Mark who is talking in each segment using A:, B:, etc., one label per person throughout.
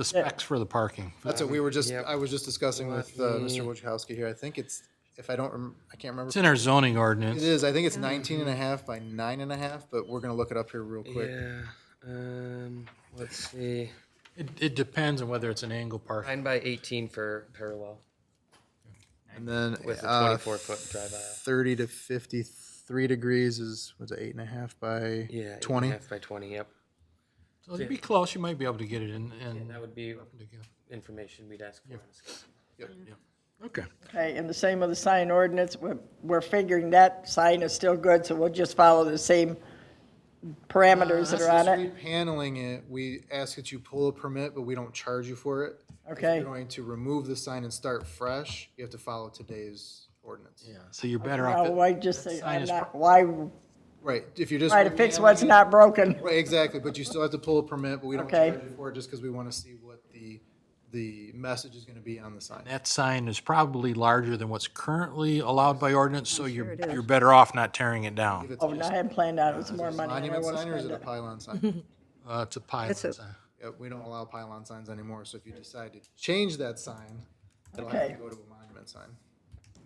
A: The specs for the parking.
B: That's what we were just, I was just discussing with uh, Mr. Wojciechowski here. I think it's, if I don't, rem- I can't remember.
A: It's in our zoning
B: It
A: ordinance.
B: is, I think it's 19 and a half by nine and a half, but we're going to look it up here real quick.
C: Yeah, um, let's see,
A: It, it depends on whether it's an angle parking.
C: nine by eighteen for parallel
B: And then
C: with a
B: uh,
C: twenty-four foot drive aisle.
B: 30 to 53 degrees is, was it eight and a half by
C: Yeah, eight and a
B: 20?
C: half by twenty. Yep,
A: So it'd be close, you might be able to get it in, in.
C: that would be information we'd ask for. on a scale.
A: Okay.
D: Okay, and the same with the sign ordinance, we're, we're figuring that sign is still good, so we'll just follow the same
B: Uh,
D: parameters that are on it.
B: Paneling it, we ask that you pull a permit, but we don't charge you for it. If
D: Okay,
B: you're going to remove the sign and start fresh, you have to follow today's ordinance.
A: Yeah, so you're better off.
D: now Uh, why just say,
A: sign
D: I'm
A: is
D: not, why
B: Right, if you're just.
D: try to fix
B: repaneling
D: what's
B: it-
D: not broken?
B: Right, exactly, but you still have to pull a permit, but we don't
D: Okay.
B: charge you for it just because we want to see what the, the message is going to be on the sign.
A: That sign is probably larger than what's currently allowed by ordinance, so you're, you're better off not tearing it down.
D: Oh, no, I hadn't planned on it, it's more
B: Is it a
D: money than I
B: Monument
D: want to
B: sign or is
D: spend
B: it a
D: it.
B: pylon sign?
A: Uh, it's a pylon
E: It's a-
A: sign.
B: Yeah, We don't allow pylon signs anymore, so if you decide to change that sign, it'll have to
D: Okay.
B: go to a monument sign.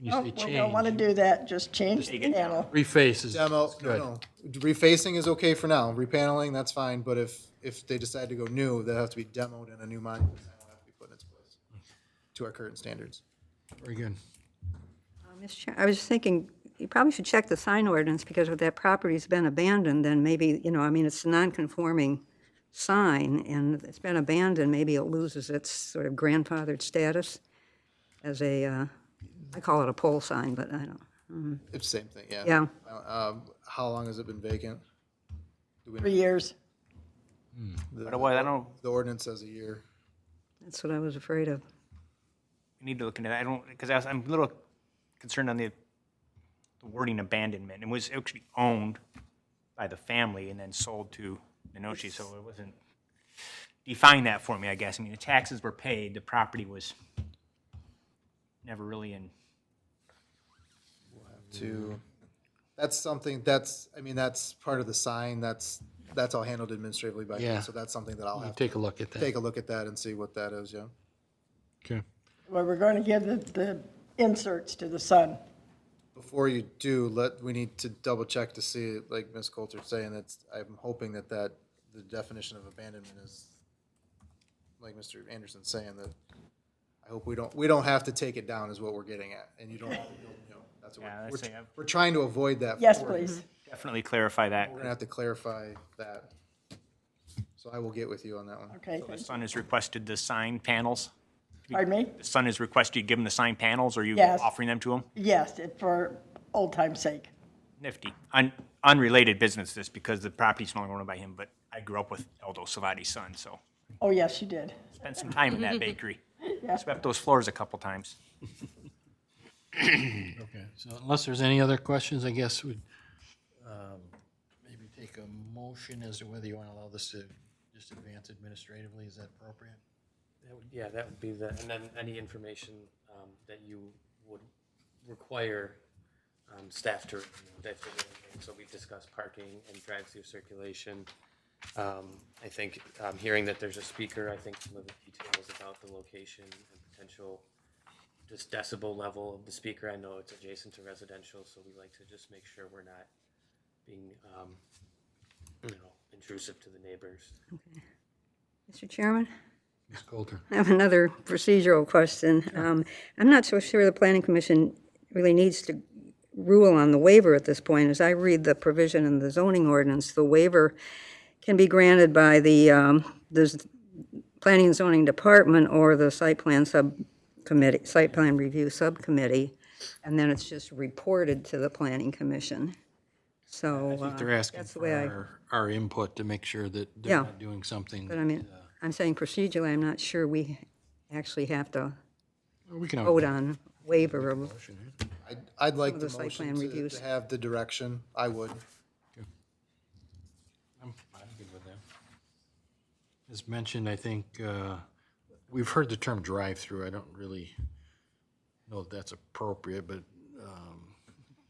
A: You
D: Oh,
A: say
D: We don't want to
A: change,
D: do that, just change the panel.
A: reface is
B: Demo,
A: is
B: no,
A: good.
B: no, refacing is okay for now, repaneling, that's fine, but if, if they decide to go new, they'll have to be demoed and a new monument sign will have to be put in its place to our current standards.
A: Very good.
E: Mr. Chair, Oh, I was just thinking, you probably should check the sign ordinance, because if that property's been abandoned, then maybe, you know, I mean, it's a non-conforming sign, and if it's been abandoned, maybe it loses its sort of grandfathered status as a, uh, I call it a pole sign, but I don't,
B: It's the same thing, yeah.
E: yeah.
B: Um, how long has it been vacant?
D: Three years,
F: By the way, uh, I don't,
B: The ordinance says a year.
E: That's what I was afraid of.
F: we need to look into that. I don't, because I was, I'm a little concerned on the the wording abandonment. It was actually owned by the family and then sold to Minoshi, so it wasn't, define that for me, I guess. I mean, the taxes were paid, the property was never really in,
A: Mm-hmm.
B: to, that's something, that's, I mean, that's part of the sign, that's, that's all handled administratively by me,
A: Yeah.
B: so that's something that I'll
A: You
B: have to
A: take a look at that.
B: take a look at that and see what that is, yeah.
A: Okay.
D: where we're going to give the, the inserts to the sun.
B: Before you do, let, we need to double check to see, like Ms. Coulter's saying, that's, I'm hoping that that, the definition of abandonment is, like Mr. Anderson's saying, that I hope we don't, we don't have to take it down is what we're getting at, and you don't, you don't know. that's what
F: Yeah,
B: we're,
F: I'd say
B: we're,
F: I've-
B: we're trying to avoid that.
D: Yes,
B: for you.
D: please.
F: definitely clarify that.
B: We're gonna have to clarify that. So I will get with you on that one.
D: Okay,
F: The
D: thank-
F: son has requested the sign panels.
D: pardon me?
F: The son has requested you give him the sign panels, or you
D: Yes.
F: offering them to him?
D: Yes, it- for old time's sake.
F: Nifty. Un- unrelated business this because the property's no longer owned by him, but I grew up with Aldo Savati's son, so
D: Oh, yes, you did.
F: spent some time in that bakery. Swept those floors a couple times.
A: Okay, so unless there's any other questions, I guess we'd um, maybe take a motion as to whether you want to allow this to just advance administratively, is that appropriate?
C: That would- Yeah, that would be the, and then any information um, that you would require um, staff to, review, that sort of thing. so we've discussed parking and drive-through circulation. Um, I think, um, hearing that there's a speaker, I think some of the details about the location and potential just decibel level of the speaker, I know it's adjacent to residential, so we like to just make sure we're not being, um, you know, intrusive to the neighbors.
E: Mr. Chairman?
A: Ms. Coulter?
E: I have another procedural question. Um, I'm not so sure the planning commission really needs to rule on the waiver at this point. As I read the provision in the zoning ordinance, the waiver can be granted by the, um, the z- planning and zoning department or the site plan subcommittee, site plan review subcommittee, and then it's just reported to the planning commission. So, uh,
A: They're asking
E: that's the way I-
A: for our, our input to make sure that
E: Yeah.
A: they're not doing something.
E: but I mean, I'm saying procedurally, I'm not sure we actually have to
A: We can,
E: vote
A: always-
E: on waiver of
B: I'd, I'd like the
E: the site
B: motion
E: plan
B: to-
E: reviews.
B: to have the direction, I would.
A: I'm, I'm good with that. As mentioned, I think, uh, we've heard the term drive-through, I don't really know if that's appropriate, but, um,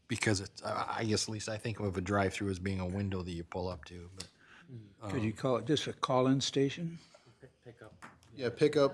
A: because it's, I, I guess, at least I think of a drive-through as being a window that you pull up to, but.
G: Could you call it just a call-in station?
C: Pick up
B: Yeah, pickup,